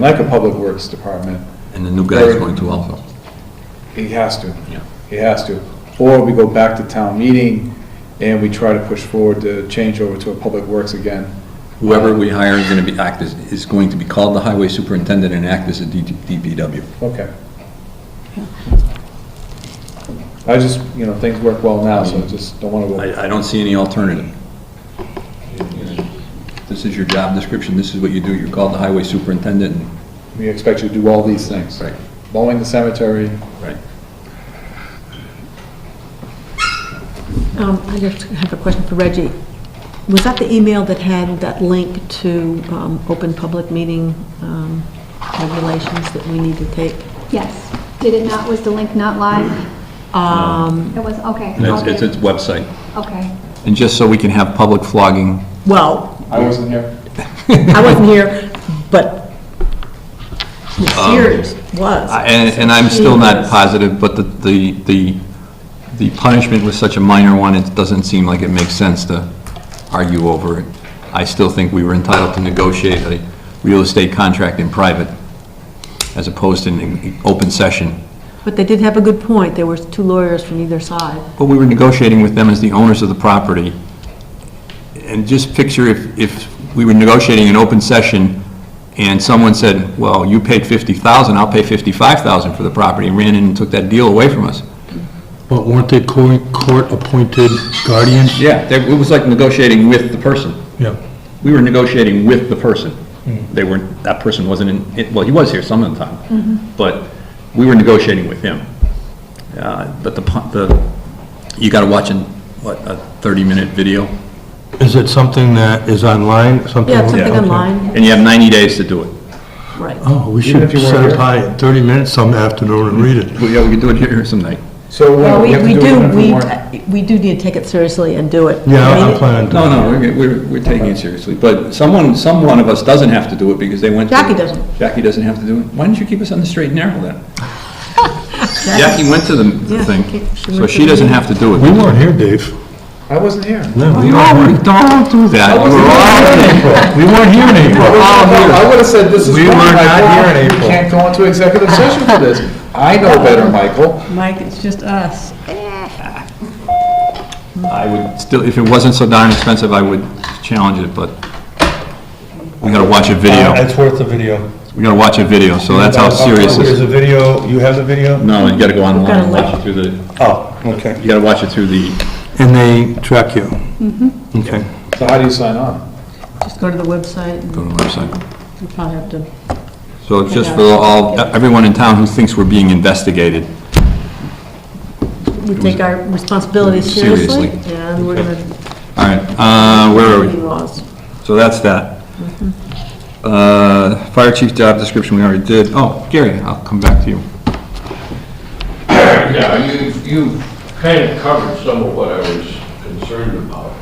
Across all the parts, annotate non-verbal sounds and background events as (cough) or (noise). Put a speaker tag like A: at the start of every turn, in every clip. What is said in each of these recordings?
A: like a public works department,
B: And the new guy's going to also.
A: he has to.
B: Yeah.
A: He has to. Or we go back to town meeting and we try to push forward the change over to a public works again.
B: Whoever we hire is going to be, act as, is going to be called the highway superintendent and act as a DT DPW.
A: Okay. I just, you know, things work well now, so I
C: Mm-hmm.
A: just don't want to go.
B: I, I don't see any alternative. This is your job description, this is what you do, you're called the highway superintendent. and-
A: We expect you to do all these things.
B: Right.
A: Mowing the cemetery,
B: Right.
D: Um, I just have a question for Reggie. Was that the email that had that link to um, open public meeting um, regulations that we need to take?
E: Yes. Did it not, was the link not live?
D: Um,
E: It was, okay.
B: It's,
E: I'll
B: it's
E: get-
B: its website.
E: Okay.
B: And just so we can have public flogging,
D: Well,
A: I wasn't here.
D: I wasn't here, but Sears was.
B: Um, I- and, and I'm still not positive, but the, the, the the punishment was such a minor one, it doesn't seem like it makes sense to argue over it. I still think we were entitled to negotiate a real estate contract in private as opposed to an open session.
D: But they did have a good point. There were two lawyers from either side.
B: But we were negotiating with them as the owners of the property. And just picture if, if we were negotiating an open session and someone said, well, you paid 50,000, I'll pay 55,000 for the property, and ran in and took that deal away from us.
C: But weren't they court- court-appointed guardians?
B: Yeah, they- it was like negotiating with the person.
C: Yeah.
B: We were negotiating with the person. They weren't, that person wasn't in, it- well, he was here some of the time, but we were negotiating with him. Uh, But the, pu- the, you gotta watch an, what, a 30-minute video?
C: Is it something that is online, something?
D: Yeah, something
B: Yeah.
D: online,
B: And you have 90 days to do it.
D: right.
C: Oh, we
A: Even
C: should
A: if you weren't
C: set
A: here.
C: it by 30 minutes some afternoon and read it.
B: Well, yeah, we could do it here some night.
A: So we
D: Well, we
A: have to
D: we
A: do it
D: do,
A: under
D: we,
A: warrant.
D: we do need to take it seriously and do it.
C: Yeah,
D: I mean,
C: I'm planning
B: No,
C: to.
B: no, we're, we're, we're taking it seriously, but someone, some one of us doesn't have to do it because they went. to-
D: Jackie doesn't.
B: Jackie doesn't have to do it. Why don't you keep us on the straight and narrow
D: (laughs)
B: then? Jackie went to the the
D: Yeah,
B: thing,
D: she- she
B: so
D: went to
B: she
D: the
B: doesn't
D: meeting.
B: have to do it.
C: We weren't here, Dave.
A: I wasn't here.
D: Oh,
C: No, we
B: No,
C: weren't
B: we
C: here.
B: don't do that.
A: wasn't
B: We're all
A: here.
B: in April.
C: We weren't here in April.
A: I would have said, this is
C: Oh, We
A: wrong,
C: were not here
A: Michael,
C: in
A: you
C: April.
A: can't go into executive session for this. I know better, Michael.
D: Mike, it's just us.
B: I would still, if it wasn't so darn expensive, I would challenge it, but we gotta watch a video.
C: It's worth the video.
B: We gotta watch Uh, a video, so that's how serious this is.
C: There's a video, you have the video?
B: No, you gotta go online
D: gotta
B: and watch it
D: look.
B: through the,
C: Oh, okay.
B: you gotta watch it through the,
C: And they track you?
D: Mm-hmm.
C: Okay.
A: So how do you sign on?
D: Just go to the website and
B: go to the website.
D: you probably have to
B: So it's just for all, everyone in town who thinks we're being investigated.
D: We take our responsibilities
B: Seriously.
D: seriously, and we're going to
B: All right, uh, where are
D: be
B: we?
D: laws.
B: So that's that.
A: Mm-hmm.
B: Uh, fire chief job description, we already did. Oh, Gary, I'll come back to you.
F: Yeah, you, you kind of covered some of what I was concerned about.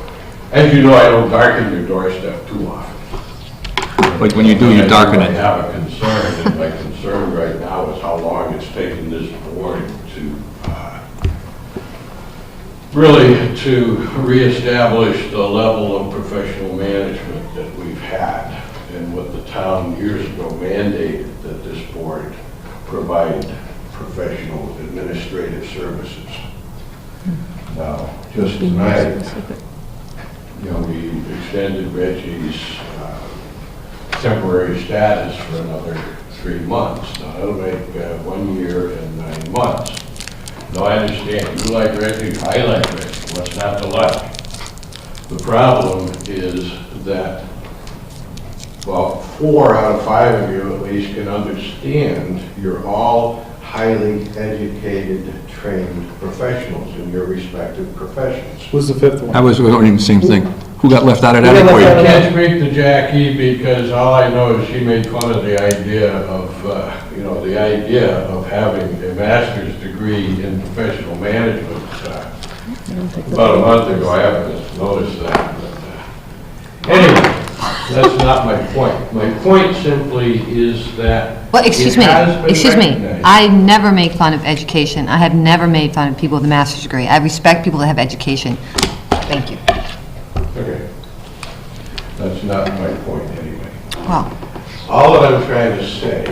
F: As you know, I don't darken your doorstep too often.
B: But when you do, you darken
F: I
B: it.
F: have a concern, and my concern right now is how long it's taken this board to, uh, really to reestablish the level of professional management that we've had and what the town years ago mandated that this board provide professional administrative services. Now, just tonight, you know, we extended Reggie's uh, temporary status for another three months. Now, that'll make uh, one year and nine months. Now, I understand, you like Reggie, I like Reggie, what's not to like? The problem is that, well, four out of five of you at least can understand, you're all highly educated, trained professionals in your respective professions.
A: Who's the fifth one?
B: I was wondering the same thing. Who got left out of that
A: Who got left out
B: equation?
F: I can't speak to Jackie because all I know is she made fun of the idea of, uh, you know, the idea of having a master's degree in professional management. uh, About a month ago, I haven't noticed that. but, uh, Anyway, that's not my point. My point simply is that.
G: Well, excuse
F: it
G: me,
F: has been
G: excuse me.
F: recognized.
G: I never make fun of education. I have never made fun of people with a master's degree. I respect people that have education. Thank you.
F: Okay. That's not my point anyway.
G: Well,
C: All that I'm trying to say